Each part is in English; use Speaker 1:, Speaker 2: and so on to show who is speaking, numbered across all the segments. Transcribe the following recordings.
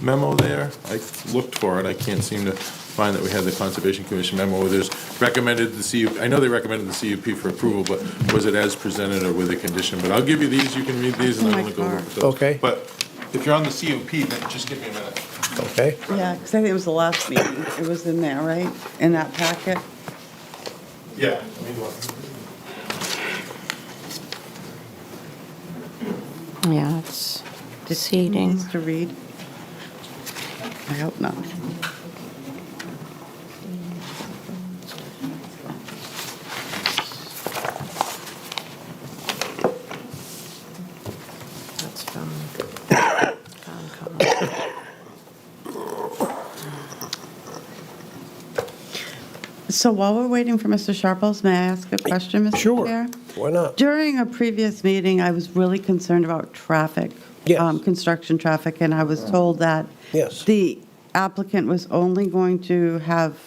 Speaker 1: memo there? I looked for it, I can't seem to find that we had the Conservation Commission memo, where there's recommended the CUP, I know they recommended the CUP for approval, but was it as presented or with a condition? But I'll give you these, you can read these, and
Speaker 2: Oh
Speaker 1: then
Speaker 2: my
Speaker 1: we'll go
Speaker 2: God.
Speaker 1: over those.
Speaker 3: Okay.
Speaker 1: But if you're on the CUP, then just give me a minute.
Speaker 3: okay?
Speaker 2: Yeah, because I think it was the last meeting. It was in there, right? In that packet?
Speaker 1: Yeah. I mean, what-
Speaker 4: Yeah, it's deceiving.
Speaker 2: Needs to read? I hope not.
Speaker 4: That's from, from Colin.
Speaker 2: So while we're waiting for Mr. Sharples, may I ask a question, Mr.
Speaker 3: Sure.
Speaker 2: Chair?
Speaker 3: Why not?
Speaker 2: During a previous meeting, I was really concerned about traffic.
Speaker 3: Yes.
Speaker 2: um, Construction traffic, and I was told that.
Speaker 3: Yes.
Speaker 2: The applicant was only going to have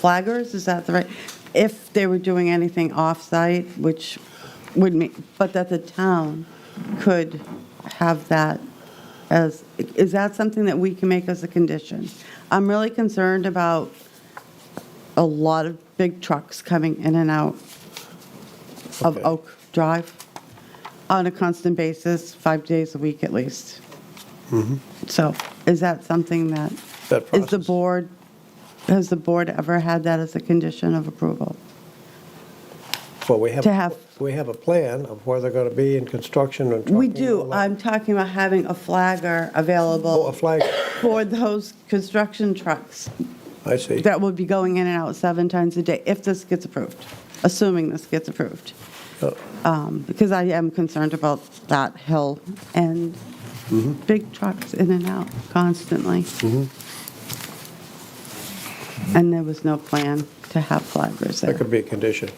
Speaker 2: flaggers, is that the right? If they were doing anything off-site, which would mean, but that the town could have that as, is that something that we can make as a condition? I'm really concerned about a lot of big trucks coming in and out of
Speaker 3: Okay.
Speaker 2: Oak Drive on a constant basis, five days a week at least. So is that something that,
Speaker 3: That
Speaker 2: is the
Speaker 3: Mm-hmm. process.
Speaker 2: board, has the board ever had that as a condition of approval?
Speaker 3: Well, we have,
Speaker 2: To have-
Speaker 3: we have a plan of where they're going to be in construction and trucking.
Speaker 2: We
Speaker 3: and all
Speaker 2: do.
Speaker 3: that.
Speaker 2: I'm talking about having a flagger
Speaker 3: Oh, a
Speaker 2: available
Speaker 3: flag,
Speaker 2: for those construction trucks
Speaker 3: I see.
Speaker 2: that will be going in and out seven times a day if this gets approved, assuming this gets approved.
Speaker 3: Oh,
Speaker 2: um, because I am concerned about that hill and
Speaker 3: Mm-hmm.
Speaker 2: big trucks in and out constantly. And there was no plan to have flaggers
Speaker 3: That
Speaker 2: there.
Speaker 3: Mm-hmm. could be a condition.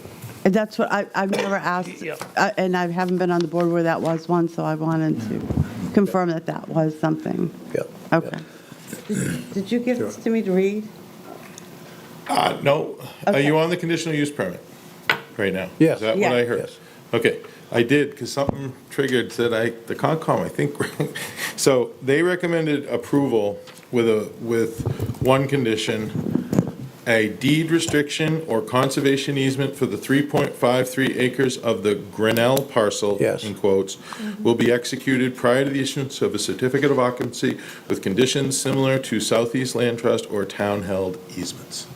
Speaker 2: And That's what, I, I've never asked, uh, and I haven't been on the board where that was one, so I wanted to confirm that that was something.
Speaker 3: Yeah. Mm-hmm. yeah.
Speaker 2: Okay. Did you give this to me to read?
Speaker 1: Uh, no, are you
Speaker 2: Okay.
Speaker 1: on the conditional use permit right now?
Speaker 3: Yes.
Speaker 1: Is that what I
Speaker 2: Yeah.
Speaker 1: heard?
Speaker 3: Yes.
Speaker 1: Okay, I did, because something triggered, said I, the Concom, I think, so they recommended approval with a, with one condition, a deed restriction or conservation easement for the 3.53 acres of the Grinnell parcel.
Speaker 3: Yes.
Speaker 1: In quotes, will be executed prior to the issuance of a certificate of occupancy with conditions similar to Southeast Land Trust or town-held easements.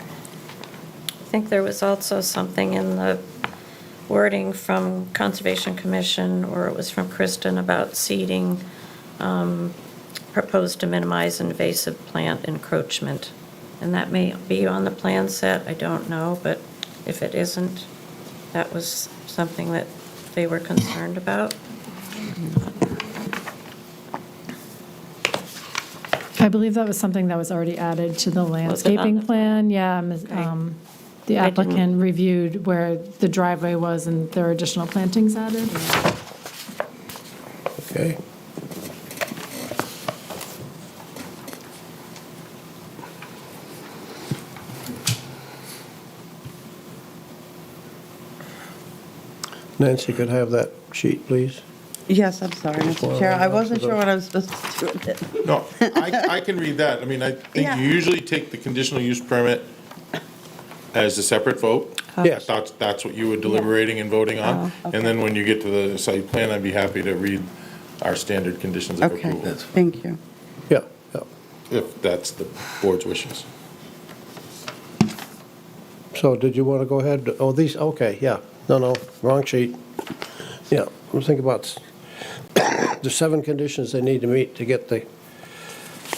Speaker 4: I think there was also something in the wording from Conservation Commission, or it was from Kristen, about seeding um, proposed to minimize invasive plant encroachment. And that may be on the plan set, I don't know, but if it isn't, that was something that they were concerned about.
Speaker 5: I believe that was something that was already added to the
Speaker 4: it on
Speaker 5: landscaping
Speaker 4: the-
Speaker 5: plan, yeah. Ms- um, The
Speaker 4: I didn't-
Speaker 5: applicant reviewed where the driveway was and there were additional plantings added.
Speaker 3: Okay. Nancy, could I have that sheet, please?
Speaker 2: Yes, I'm sorry, Mr. Chair. I wasn't sure what I was supposed to do with it.
Speaker 1: No, I, I can read that. I mean, I think
Speaker 2: Yeah.
Speaker 1: you usually take the conditional use permit as a separate vote.
Speaker 2: Uh,
Speaker 3: Yes.
Speaker 1: That's, that's what you were deliberating and voting on.
Speaker 2: Oh,
Speaker 1: And then when you get to the site plan, I'd be happy to read our standard conditions of
Speaker 2: Okay,
Speaker 1: approval,
Speaker 2: thank you.
Speaker 3: Yeah, yeah.
Speaker 1: if that's the board's wishes.
Speaker 3: So did you want to go ahead? Oh, these, okay, yeah. No, no, wrong sheet. Yeah, I'm thinking about s- the seven conditions they need to meet to get the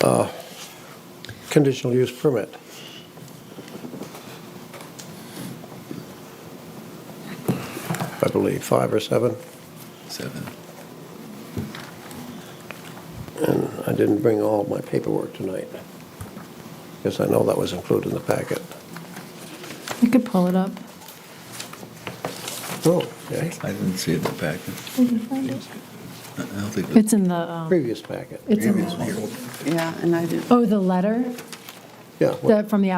Speaker 3: uh, conditional use permit. I believe five or seven.
Speaker 6: Seven.
Speaker 3: And I didn't bring all my paperwork tonight. Because I know that was included in the packet.
Speaker 5: You could pull it up.
Speaker 3: Oh, okay.
Speaker 6: I didn't see it in the packet. I don't think it
Speaker 5: It's in the, um,
Speaker 3: Previous packet.
Speaker 5: it's in,
Speaker 6: was
Speaker 5: the-
Speaker 6: one.
Speaker 2: Yeah, and I didn't.
Speaker 5: oh, the letter
Speaker 3: Yeah.
Speaker 5: that, from the